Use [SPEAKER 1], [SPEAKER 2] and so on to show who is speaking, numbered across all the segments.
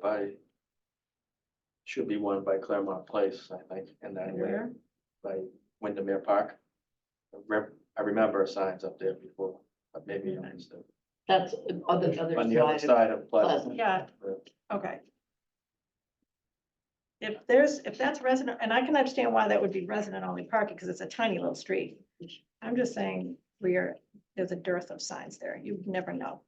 [SPEAKER 1] by. Should be one by Claremont Place, I think, in that area,
[SPEAKER 2] Where?
[SPEAKER 1] by Windermere Park. I rem- I remember signs up there before, but maybe I missed it.
[SPEAKER 3] That's on the other
[SPEAKER 1] On the other
[SPEAKER 3] side. of-
[SPEAKER 1] side of Pleasant.
[SPEAKER 3] Pleasant.
[SPEAKER 2] Yeah. Okay. If there's, if that's resident, and I can understand why that would be resident only parking, because it's a tiny little street. I'm just saying, we are, there's a dearth of signs there, you never know.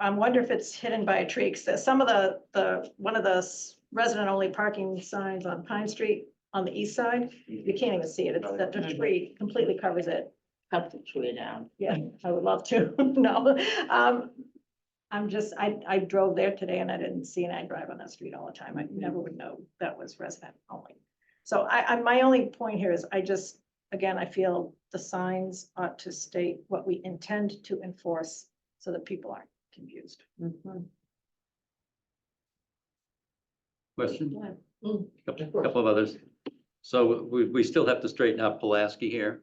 [SPEAKER 2] I wonder if it's hidden by a tree, because some of the, the, one of those resident only parking signs on Pine Street on the east side, you can't even see it, it's that the tree completely covers it.
[SPEAKER 3] Cut the tree down.
[SPEAKER 2] Yeah, I would love to, no. Um, I'm just, I, I drove there today and I didn't see, and I drive on that street all the time. I never would know that was resident only. So I, I, my only point here is I just, again, I feel the signs ought to state what we intend to enforce so that people aren't confused.
[SPEAKER 3] Mhm.
[SPEAKER 4] Question,
[SPEAKER 3] Yeah.
[SPEAKER 4] couple
[SPEAKER 3] Sure.
[SPEAKER 4] couple of others. So we, we still have to straighten out Pulaski here.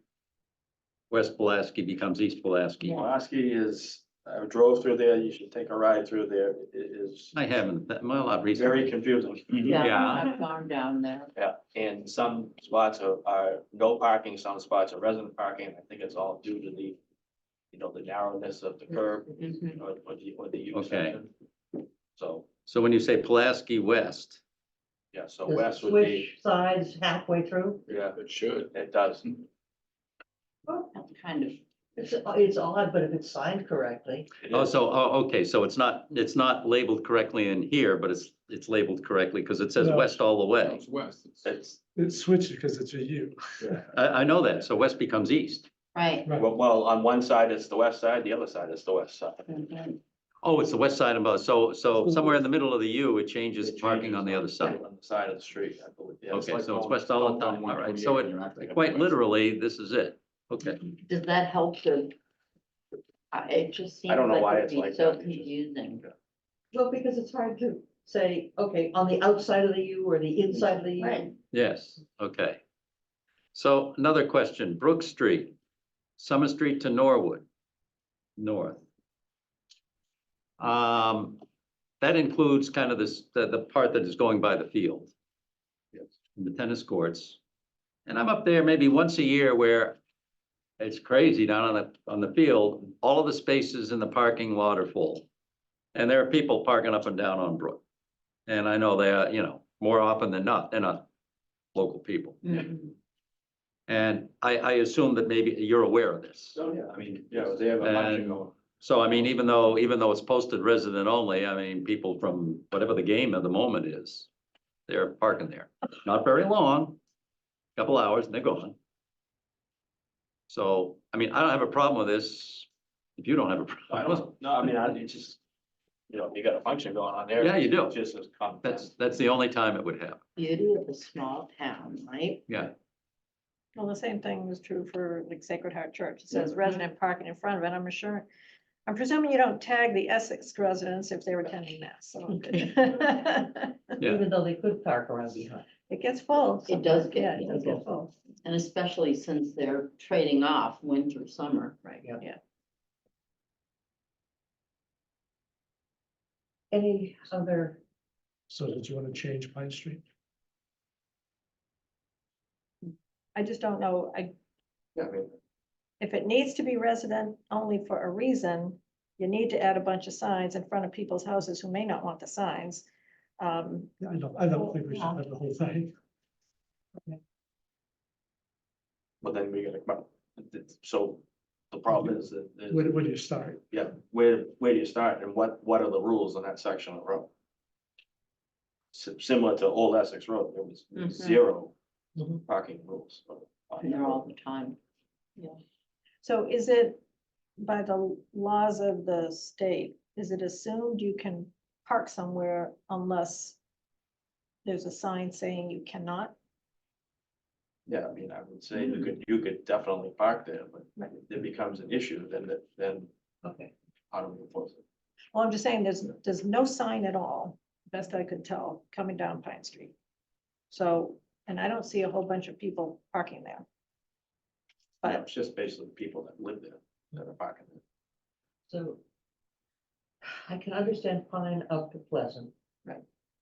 [SPEAKER 4] West Pulaski becomes East Pulaski.
[SPEAKER 3] Yeah.
[SPEAKER 1] Pulaski is, I drove through there, you should take a ride through there, it is
[SPEAKER 4] I haven't, that, well, not
[SPEAKER 1] very
[SPEAKER 4] recently. Mm-hmm.
[SPEAKER 1] confusing.
[SPEAKER 3] Yeah,
[SPEAKER 4] Yeah.
[SPEAKER 3] I've gone down there.
[SPEAKER 1] Yeah, and some spots are, are no parking, some spots are resident parking, I think it's all due to the, you know, the narrowness of the curb
[SPEAKER 3] Mhm.
[SPEAKER 1] or, or the, or the U
[SPEAKER 4] Okay.
[SPEAKER 1] section. So,
[SPEAKER 4] So when you say Pulaski West,
[SPEAKER 1] yeah, so
[SPEAKER 5] Does it
[SPEAKER 1] west would be,
[SPEAKER 5] switch Sides halfway through.
[SPEAKER 1] yeah,
[SPEAKER 6] It should.
[SPEAKER 1] it does.
[SPEAKER 4] Oh,
[SPEAKER 3] That's kind of,
[SPEAKER 5] It's, it's odd, but if it's signed correctly,
[SPEAKER 1] It
[SPEAKER 4] oh,
[SPEAKER 1] is.
[SPEAKER 4] so, oh, okay, so it's not, it's not labeled correctly in here, but it's, it's labeled correctly because it says
[SPEAKER 7] No.
[SPEAKER 4] west all the way.
[SPEAKER 6] It's west. It's-
[SPEAKER 4] uh,
[SPEAKER 1] It's,
[SPEAKER 7] It switches because it's a U.
[SPEAKER 4] I, I know that, so west becomes east.
[SPEAKER 3] right.
[SPEAKER 1] well, well, on one side it's the west side, the other side is the west side.
[SPEAKER 3] Mhm.
[SPEAKER 4] Oh, it's the west side of, so, so somewhere in the middle of the U, it changes
[SPEAKER 1] It
[SPEAKER 4] parking
[SPEAKER 1] changes
[SPEAKER 4] on the other side.
[SPEAKER 1] On the side of the street, I believe. Yeah,
[SPEAKER 4] Okay,
[SPEAKER 1] like
[SPEAKER 4] so it's
[SPEAKER 1] going-
[SPEAKER 4] west all
[SPEAKER 6] going
[SPEAKER 4] the time,
[SPEAKER 6] one
[SPEAKER 4] all right, so
[SPEAKER 6] 128,
[SPEAKER 4] it,
[SPEAKER 6] you're acting up
[SPEAKER 4] quite
[SPEAKER 6] west.
[SPEAKER 4] literally, this is it, okay.
[SPEAKER 3] Does that help to? I, it just seems
[SPEAKER 1] I don't know why
[SPEAKER 3] like
[SPEAKER 1] it's
[SPEAKER 3] it'd be
[SPEAKER 1] like
[SPEAKER 3] so
[SPEAKER 1] that.
[SPEAKER 3] confusing.
[SPEAKER 5] well, because it's hard to say, okay, on the outside of the U or the inside of the U.
[SPEAKER 3] Right.
[SPEAKER 4] Yes, okay. So another question, Brook Street, Summer Street to Norwood, north. Um, that includes kind of this, the, the part that is going by the field. The tennis courts. And I'm up there maybe once a year where it's crazy down on the, on the field, all of the spaces in the parking lot are full. And there are people parking up and down on Brook. And I know they are, you know, more often than not, they're not local people.
[SPEAKER 3] Mhm.
[SPEAKER 4] And I, I assume that maybe you're aware of this.
[SPEAKER 1] So, yeah, I mean, yeah, they have a bunch of
[SPEAKER 4] And-
[SPEAKER 1] going.
[SPEAKER 4] So I mean, even though, even though it's posted resident only, I mean, people from whatever the game of the moment is, they're parking there. Not very long, couple hours and they're gone. So, I mean, I don't have a problem with this. If you don't have a
[SPEAKER 1] I
[SPEAKER 4] problem,
[SPEAKER 1] don't, no, I mean, I, it's just, you know, you got a function going on there.
[SPEAKER 4] Yeah, you do.
[SPEAKER 1] It's Just as.
[SPEAKER 4] that's, that's the only time it would happen.
[SPEAKER 3] Beauty of a small town, right?
[SPEAKER 2] Well, the same thing was true for like Sacred Heart Church. It says resident parking in front of it. I'm sure. I'm presuming you don't tag the Essex residents if they were attending that, so.
[SPEAKER 4] Yeah.
[SPEAKER 5] Even though they could park around behind.
[SPEAKER 2] It gets full.
[SPEAKER 3] It does get-
[SPEAKER 2] Yeah, it does get full.
[SPEAKER 3] And especially since they're trading off winter, summer.
[SPEAKER 2] Right,
[SPEAKER 5] Yeah.
[SPEAKER 2] yeah.
[SPEAKER 5] Any other,
[SPEAKER 7] So did you want to change Pine Street?
[SPEAKER 2] I just don't know, I,
[SPEAKER 1] Yeah, I mean,
[SPEAKER 2] if it needs to be resident only for a reason, you need to add a bunch of signs in front of people's houses who may not want the signs. Um,
[SPEAKER 7] Yeah, I don't, I don't think we should have the whole thing.
[SPEAKER 1] But then we gotta, come up- so the problem is that, is-
[SPEAKER 7] Where, where do you start?
[SPEAKER 1] yeah, where, where do you start and what, what are the rules in that section of road? Si- Similar to Old Essex Road, there
[SPEAKER 3] Mhm.
[SPEAKER 1] was zero
[SPEAKER 5] Mhm.
[SPEAKER 1] parking rules. on- on
[SPEAKER 3] They're
[SPEAKER 1] that
[SPEAKER 3] all
[SPEAKER 1] road.
[SPEAKER 3] the time.
[SPEAKER 2] so is it by the laws of the state, is it assumed you can park somewhere unless there's a sign saying you cannot?
[SPEAKER 1] Yeah, I mean, I would say you could, you could definitely park there, but
[SPEAKER 2] Right.
[SPEAKER 1] if it becomes an issue, then, that- then
[SPEAKER 5] okay,
[SPEAKER 1] how do we enforce it?
[SPEAKER 2] Well, I'm just saying, there's, there's no sign at all, best I could tell, coming down Pine Street. So, and I don't see a whole bunch of people parking there.
[SPEAKER 1] You know,
[SPEAKER 2] But-
[SPEAKER 1] It's just basically people that live there that are parking there.
[SPEAKER 5] so. I can understand fine up to Pleasant.
[SPEAKER 2] Right.